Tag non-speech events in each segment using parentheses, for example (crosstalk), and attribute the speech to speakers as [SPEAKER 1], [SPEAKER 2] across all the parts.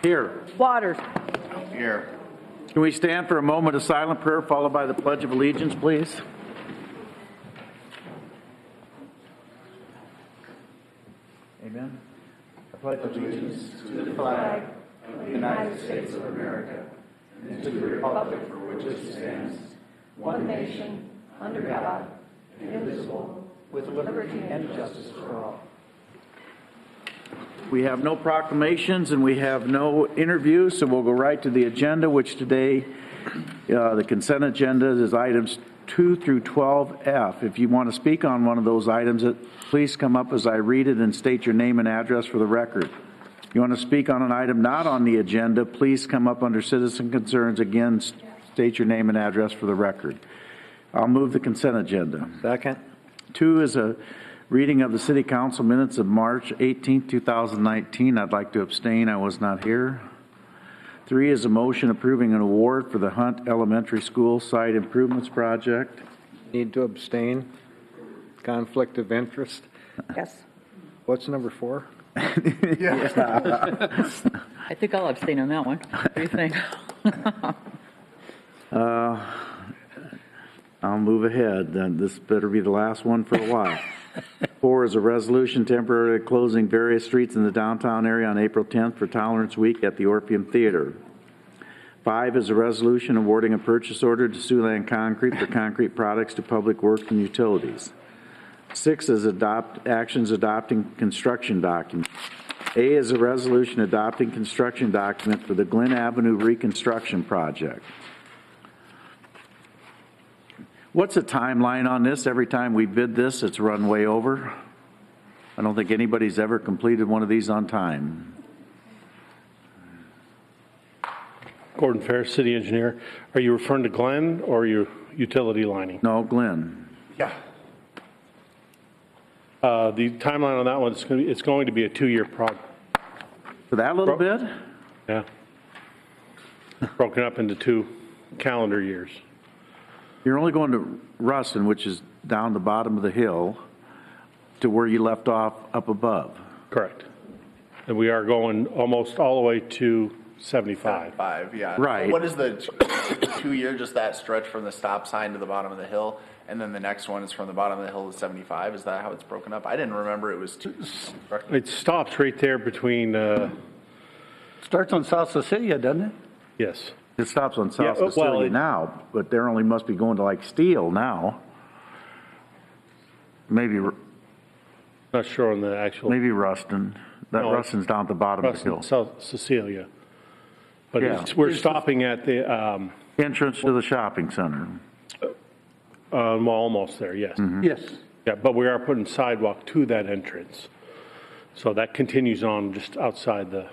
[SPEAKER 1] Here.
[SPEAKER 2] Waters.
[SPEAKER 3] Here.
[SPEAKER 1] Can we stand for a moment of silent prayer followed by the Pledge of Allegiance, please? Amen. I pledge allegiance to the flag of the United States of America and to the republic for which it stands,
[SPEAKER 2] One nation, under God, indivisible,
[SPEAKER 1] with
[SPEAKER 2] liberty and
[SPEAKER 1] justice for all. We have no proclamations and we have no interviews, so we'll go right to the agenda, which today, uh, the consent agenda is items 2 through 12F. If you want to speak on one of those items, it- please come up as I read it and state your name and address for the record. If you want to speak on an item not on the agenda, please come up under citizen concerns. Again, s- state your name and address for the record. I'll move the consent agenda.
[SPEAKER 4] Second.
[SPEAKER 1] Two is a reading of the city council minutes of March 18, 2019. I'd like to abstain, I was not here. Three is a motion approving an award for the Hunt Elementary School Site Improvements Project.
[SPEAKER 4] Need to abstain. Conflict of interest.
[SPEAKER 2] Yes.
[SPEAKER 4] What's number four?
[SPEAKER 5] I think I'll abstain on that one. What do you think?
[SPEAKER 1] I'll move ahead, then this better be the last one for a while. Four is a resolution temporarily closing various streets in the downtown area on April 10th for Tolerance Week at the Orpheum Theater. Five is a resolution awarding a purchase order to Siouxland Concrete for concrete products to Public Works and Utilities. Six is adopt, actions adopting construction documents. A is a resolution adopting construction document for the Glen Avenue Reconstruction Project. What's the timeline on this? Every time we bid this, it's run way over? I don't think anybody's ever completed one of these on time.
[SPEAKER 6] Gordon Ferris, city engineer. Are you referring to Glenn or your utility lining?
[SPEAKER 1] No, Glenn?
[SPEAKER 6] Uh, The timeline on that one, it's going to, it's going to be a two-year prog,
[SPEAKER 1] For that little bit?
[SPEAKER 6] yeah. Broken up into two calendar years.
[SPEAKER 1] You're only going to Ruston, which is down the bottom of the hill, to where you left off up above.
[SPEAKER 6] Correct. And we are going almost all the way to 75.
[SPEAKER 3] Five, yeah.
[SPEAKER 1] Right.
[SPEAKER 3] What is the (coughs) two-year, just that stretch from the stop sign to the bottom of the hill? And then the next one is from the bottom of the hill to 75? Is that how it's broken up? I didn't remember it was two.
[SPEAKER 6] It stops right there between, uh,
[SPEAKER 7] Starts on South Cecilia, doesn't it?
[SPEAKER 6] yes.
[SPEAKER 1] It stops on
[SPEAKER 6] Yeah,
[SPEAKER 1] South
[SPEAKER 6] well,
[SPEAKER 1] Cecilia
[SPEAKER 6] it-
[SPEAKER 1] now, but they're only must be going to like Steel now. Maybe, Ru-
[SPEAKER 6] Not sure on the actual,
[SPEAKER 1] maybe Ruston. That
[SPEAKER 6] No, it-
[SPEAKER 1] Ruston's down at the bottom of the hill.
[SPEAKER 6] South Cecilia. But
[SPEAKER 1] Yeah.
[SPEAKER 6] it's- we're stopping at the, um,
[SPEAKER 1] Entrance to the shopping center.
[SPEAKER 6] uh, well, almost there, yes.
[SPEAKER 3] Mm-hmm.
[SPEAKER 7] Yes.
[SPEAKER 6] Yeah, but we are putting sidewalk to that entrance. So that continues on just outside the,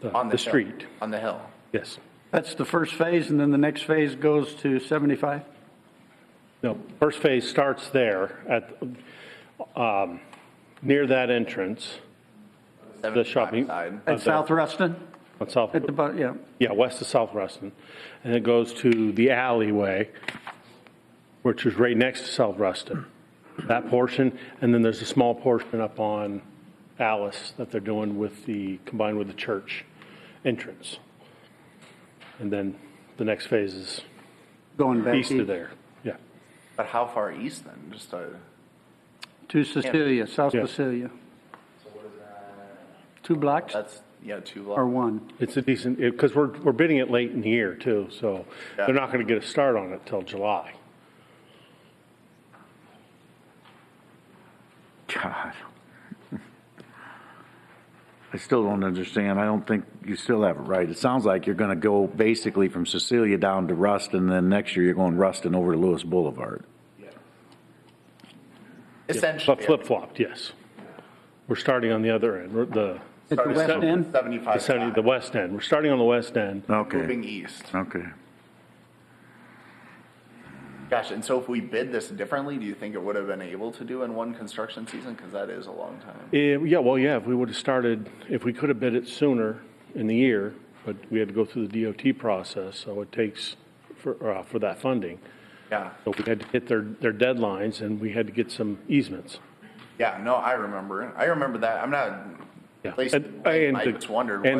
[SPEAKER 6] the-
[SPEAKER 3] On the
[SPEAKER 6] the
[SPEAKER 3] hill.
[SPEAKER 6] street.
[SPEAKER 3] On the hill.
[SPEAKER 6] Yes.
[SPEAKER 7] That's the first phase, and then the next phase goes to 75?
[SPEAKER 6] No, first phase starts there at, um, near that entrance,
[SPEAKER 3] 75
[SPEAKER 6] shopping-
[SPEAKER 3] side.
[SPEAKER 7] At South Ruston?
[SPEAKER 6] on South,
[SPEAKER 7] At the, bu- yeah.
[SPEAKER 6] yeah, west of South Ruston. And it goes to the alleyway, which is right next to South Ruston. That portion, and then there's a small portion up on Alice that they're doing with the, combined with the church entrance. And then the next phase is
[SPEAKER 7] Going back
[SPEAKER 6] east of
[SPEAKER 7] east
[SPEAKER 6] there. Yeah,
[SPEAKER 3] But how far east then? Just a,
[SPEAKER 7] to Cecilia, South
[SPEAKER 6] Yeah.
[SPEAKER 7] Cecilia. Two blocks
[SPEAKER 3] that's, yeah, two
[SPEAKER 7] or
[SPEAKER 3] blocks.
[SPEAKER 7] one?
[SPEAKER 6] it's a decent, because we're, we're bidding it late in the year too, so
[SPEAKER 3] Yeah.
[SPEAKER 6] they're not going to get a start on it till July.
[SPEAKER 1] God. I still don't understand. I don't think you still have it right. It sounds like you're gonna go basically from Cecilia down to Ruston, then next year you're going Ruston over to Lewis Boulevard.
[SPEAKER 3] Essentially.
[SPEAKER 6] But flip-flopped, yes. We're starting on the other end, we're- the,
[SPEAKER 7] At the west end?
[SPEAKER 3] 75
[SPEAKER 6] the 70 the west end. We're starting on the west end.
[SPEAKER 1] Okay,
[SPEAKER 3] Moving east.
[SPEAKER 1] okay.
[SPEAKER 3] Gosh, and so if we bid this differently, do you think it would have been able to do in one construction season? Because that is a long time.
[SPEAKER 6] Eh, Yeah, well, yeah, if we would have started, if we could have bid it sooner in the year, but we had to go through the DOT process, so it takes for, uh, for that funding.
[SPEAKER 3] Yeah.
[SPEAKER 6] So we had to hit their, their deadlines and we had to get some easements.
[SPEAKER 3] Yeah, no, I remember. I remember that. I'm not.
[SPEAKER 6] Yeah.
[SPEAKER 3] placing
[SPEAKER 6] And-
[SPEAKER 3] blame.
[SPEAKER 6] and
[SPEAKER 3] I
[SPEAKER 6] the-
[SPEAKER 3] just wondered
[SPEAKER 6] and
[SPEAKER 3] what-